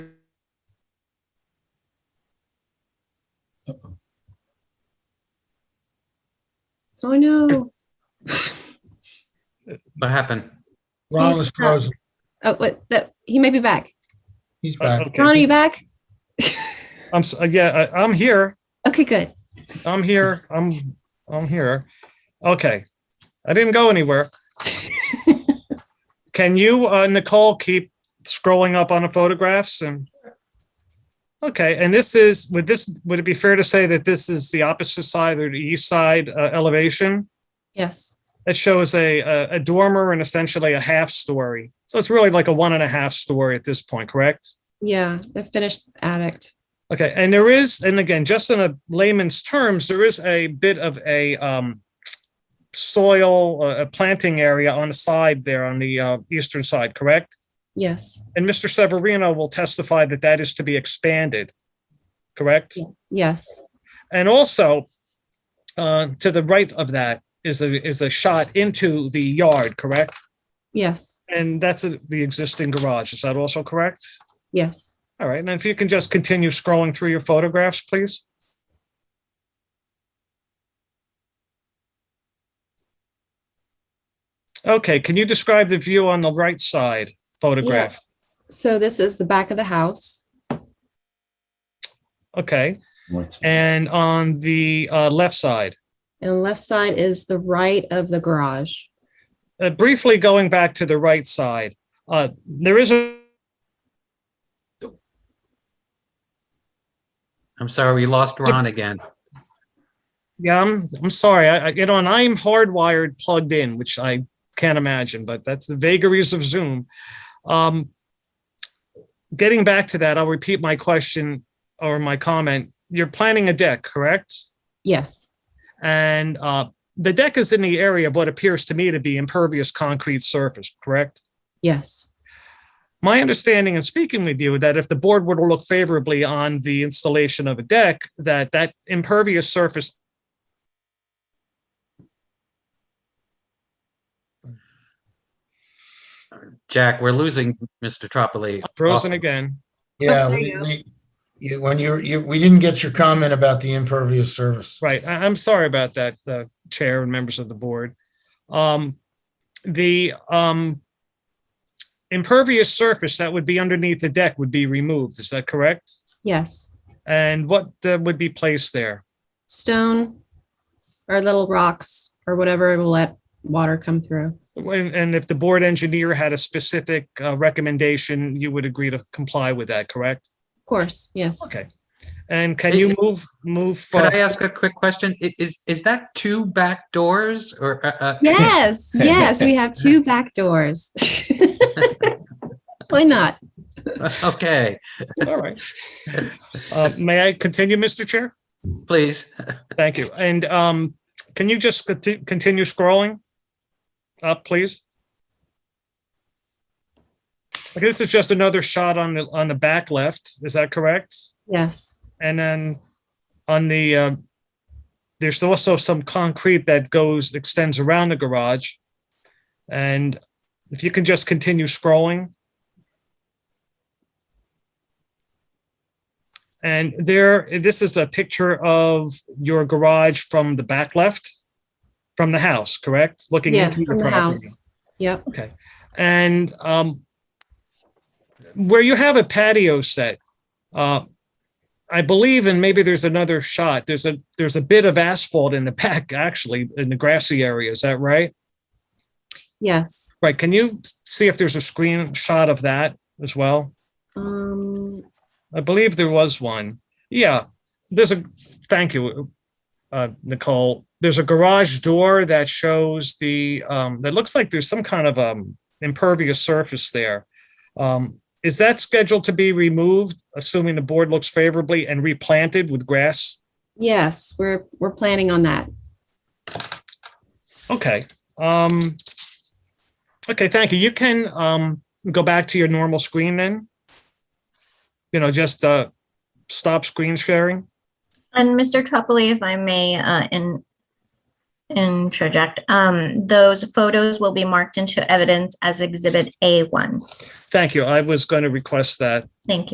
Oh, no. What happened? Ron He's was back. frozen. Oh, what, that, he may be back. He's Uh, back. Ron, are Okay, you back? I'm, s- uh, yeah, I- I'm here. Okay, good. I'm here. I'm, I'm here. Okay. I didn't go anywhere. Can you, uh, Nicole, keep scrolling up on the photographs and? Okay, and this is, would this, would it be fair to say that this is the opposite side or the east side uh, elevation? Yes. It shows a, a a dormer and essentially a half story. So it's really like a one and a half story at this point, correct? Yeah, the finished addict. Okay, and there is, and again, just in a layman's terms, there is a bit of a um, soil, uh, a planting area on the side there on the uh, eastern side, correct? Yes, And Mr. Severino will testify that that is to be expanded, correct? yes. And also, uh, to the right of that is a, is a shot into the yard, correct? Yes, And that's a- the existing garage, is that also correct? yes. All right, and if you can just continue scrolling through your photographs, please. Okay, can you describe the view on the right side photograph? So this is the back of the house. Okay, What? and on the uh, left side. And the left side is the right of the garage. Uh, Briefly going back to the right side, uh, there is a, I'm sorry, we lost Ron again. yeah, I'm, I'm sorry, I, I- you know, and I'm hardwired plugged in, which I can't imagine, but that's the vagaries of Zoom. Um, Getting back to that, I'll repeat my question or my comment. You're planning a deck, correct? Yes, And uh, the deck is in the area of what appears to me to be impervious concrete surface, correct? yes, My understanding in speaking with you that if the board were to look favorably on the installation of a deck, that that impervious surface. Jack, we're losing Mr. Tropoli. Frozen Oh. again. Yeah, there we, you go. we, you- when you're, you, we didn't get your comment about the impervious service. Right. I, I'm sorry about that, uh, Chair and members of the board. Um, the um, impervious surface that would be underneath the deck would be removed. Is that correct? yes. And what uh, would be placed there? Stone or little rocks or whatever will let water come through. And and if the board engineer had a specific uh, recommendation, you would agree to comply with that, correct? Of course, yes. Okay. And can you Hey, move, move? Could I uh, ask a quick question? I- Is, is that two back doors or, uh, uh, Yes, yes, we have two back doors. Why not? okay, All right. Uh, May I continue, Mr. Chair? please. Thank you. And um, can you just conti- continue scrolling? Up, please. Okay, This is just another shot on the, on the back left. Is that correct? Yes, And then on the, uh, there's also some concrete that goes, extends around the garage. And if you can just continue scrolling. And there, this is a picture of your garage from the back left, from the house, correct? Looking yes, into your from the property. house. Yep, And um, where you have a patio set, uh, I believe, and maybe there's another shot, there's a, there's a bit of asphalt in the back, actually, in the grassy area. Is that right? yes. Right. Can you see if there's a screenshot of that as well? Um, I believe there was one. Yeah, there's a, thank you, uh, Nicole. There's a garage door that shows the, um, that looks like there's some kind of, um, impervious surface there. Um, is that scheduled to be removed, assuming the board looks favorably and replanted with grass? yes, we're, we're planning on that. Okay, um, okay, thank you. You can, um, go back to your normal screen then. You know, just, uh, stop screen sharing. And Mr. Tropoli, if I may, uh, in, interject, um, those photos will be marked into evidence as Exhibit A1. Thank you. I was going to request that. Thank you.